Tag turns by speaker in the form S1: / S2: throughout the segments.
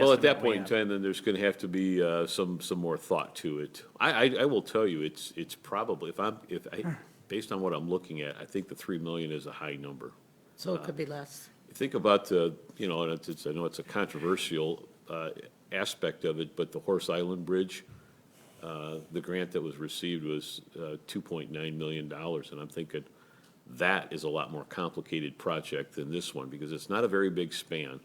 S1: Well, at that
S2: estimate we
S1: point in
S2: have.
S1: time, then there's gonna have to be, uh, some, some more thought to it. I, I, I will tell you, it's, it's probably, if I'm, if I, based on what I'm looking at, I think the three million is a high number.
S3: So it could be less.
S1: Think about the, you know, and it's- it's, I know it's a controversial uh, aspect of it, but the Horse Island Bridge, uh, the grant that was received was uh, $2.9 million. And I'm thinking, that is a lot more complicated project than this one, because it's not a very big span.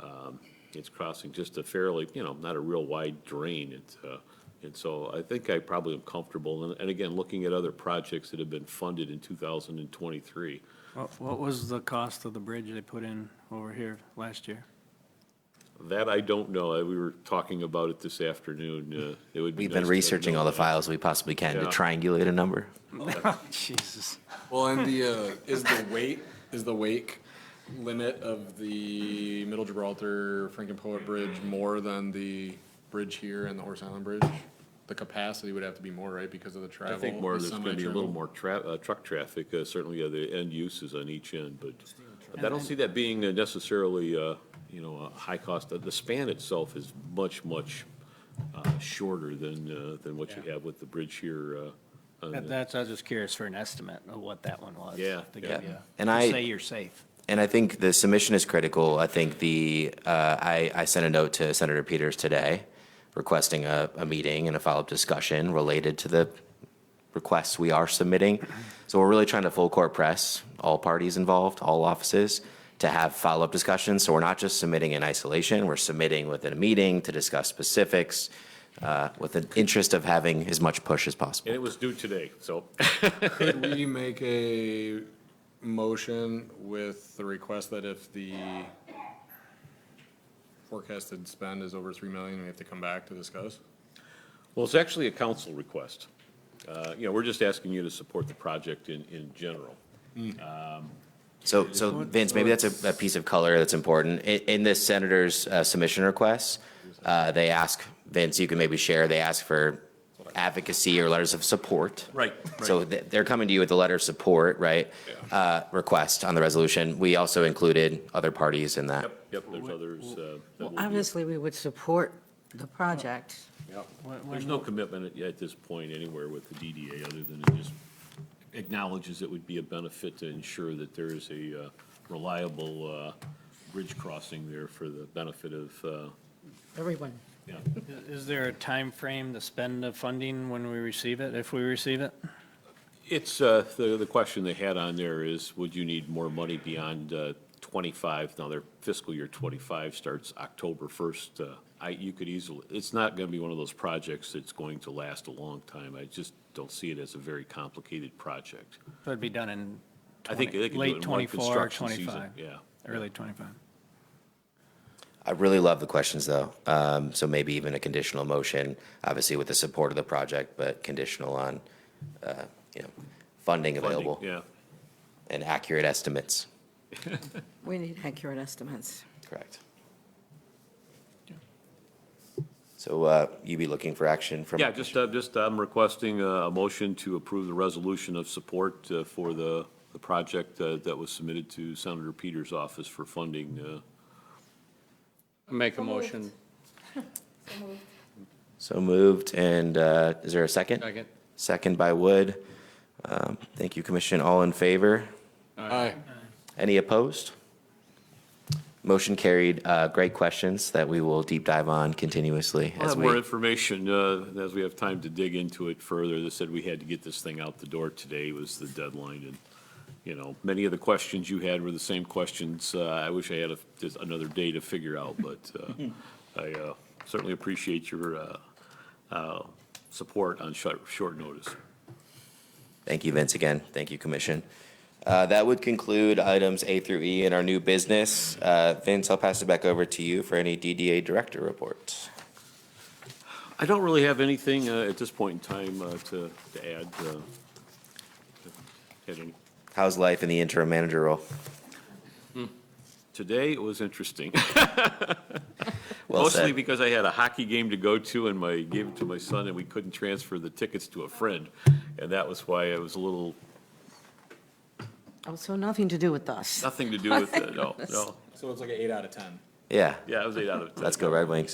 S1: Um, It's crossing just a fairly, you know, not a real wide drain. It's, uh, And so I think I probably am comfortable. And- And again, looking at other projects that have been funded in 2023,
S4: What, what was the cost of the bridge they put in over here last year?
S1: That I don't know. Uh, We were talking about it this afternoon. Uh, It would be.
S5: We've been
S1: nice to
S5: researching
S1: know
S5: all the
S1: that.
S5: files we possibly can to
S1: Yeah.
S5: triangulate a number.
S4: Oh, Jesus.
S6: Well, and the, uh, is the weight, is the wake limit of the Middle Gibraltar Franken Poet Bridge more than the bridge here and the Horse Island Bridge? The capacity would have to be more, right, because of the
S1: I
S6: travel?
S1: think more,
S6: the
S1: there's going to be a little
S6: semi-travel?
S1: more tra- uh, truck traffic, uh, certainly uh, the end uses on each end, but I don't see that being uh, necessarily, uh, you know, a high cost. Uh, The span itself is much, much uh, shorter than, uh, than what you have with the bridge here. uh, on the-
S2: That's, I was just curious for an estimate of what that one was.
S1: Yeah,
S2: to
S1: yeah.
S2: give you-
S5: And
S2: to
S5: I-
S2: Say you're safe.
S5: And I think the submission is critical. I think the, uh, I, I sent a note to Senator Peters today requesting a, a meeting and a follow-up discussion related to the requests we are submitting. So we're really trying to full court press all parties involved, all offices, to have follow-up discussions. So we're not just submitting in isolation, we're submitting within a meeting to discuss specifics, uh, with an interest of having as much push as
S1: And
S5: possible.
S1: it was due today, so.
S6: Could we make a motion with the request that if the forecasted spend is over three million, we have to come back to discuss?
S1: Well, it's actually a council request. Uh, You know, we're just asking you to support the project in, in general.
S5: So, so Vince, maybe that's a, a piece of color that's important. In, in this senator's uh, submission requests, uh, they ask, Vince, you can maybe share, they ask for advocacy or letters of support.
S1: Right,
S5: So th- they're coming to you with a letter of support, right? Uh, request on the resolution. We also included other parties in that.
S1: Yep, yep, there's others. uh, that will be-
S3: Obviously, we would support the project.
S4: When-
S1: There's
S4: when-
S1: no commitment at- at this point anywhere with the DDA, other than it just acknowledges it would be a benefit to ensure that there is a uh, reliable uh, bridge crossing there for the benefit of, uh,
S3: Everyone,
S1: yeah.
S4: Is there a time frame to spend the funding when we receive it, if we receive it?
S1: It's, uh, the, the question they had on there is, would you need more money beyond uh, 25? Now, their fiscal year 25 starts October 1st. Uh, I, you could easily, it's not going to be one of those projects that's going to last a long time. I just don't see it as a very complicated project.
S4: So it'd be done in
S1: I think
S4: 20
S1: they can do it
S4: late
S1: in one
S4: 24,
S1: construction season,
S4: 25,
S1: yeah.
S4: early 25.
S5: I really love the questions though. Um, so maybe even a conditional motion, obviously with the support of the project, but conditional on, uh, you know, funding
S1: Funding,
S5: available
S1: Yeah.
S5: and accurate estimates.
S3: we need accurate estimates.
S5: Correct. So uh, you be looking for action from?
S1: Yeah, just, uh, just, I'm requesting uh, a motion to approve the resolution of support uh, for the, the project uh, that was submitted to Senator Peters' office for funding. uh,
S7: Make a motion.
S5: So moved, and uh, is there a second?
S7: Second.
S5: Second by Wood. Um, Thank you, Commission. All in favor?
S6: Aye.
S5: Any opposed? Motion carried. Uh, Great questions that we will deep dive on continuously
S1: We'll
S5: as
S1: have more
S5: we.
S1: information uh, as we have time to dig into it further. They said we had to get this thing out the door today was the deadline, and, you know, many of the questions you had were the same questions. Uh, I wish I had a- just another day to figure out, but uh, I uh, certainly appreciate your uh, uh, support on short short notice.
S5: Thank you, Vince, again. Thank you, Commission. Uh, That would conclude items A through E in our new business. Uh, Vince, I'll pass it back over to you for any DDA Director reports.
S1: I don't really have anything uh, at this point in time uh, to to add. uh, had any-
S5: How's life in the interim manager role?
S1: Today, it was interesting.
S5: Well
S1: Mostly
S5: said.
S1: because I had a hockey game to go to and my, gave it to my son and we couldn't transfer the tickets to a friend. And that was why I was a little,
S3: Also, nothing to do with us.
S1: nothing to do with it, no, no.
S6: So it's like an eight out of ten.
S5: Yeah,
S1: Yeah, it was eight out of 10.
S5: let's go Red Wings.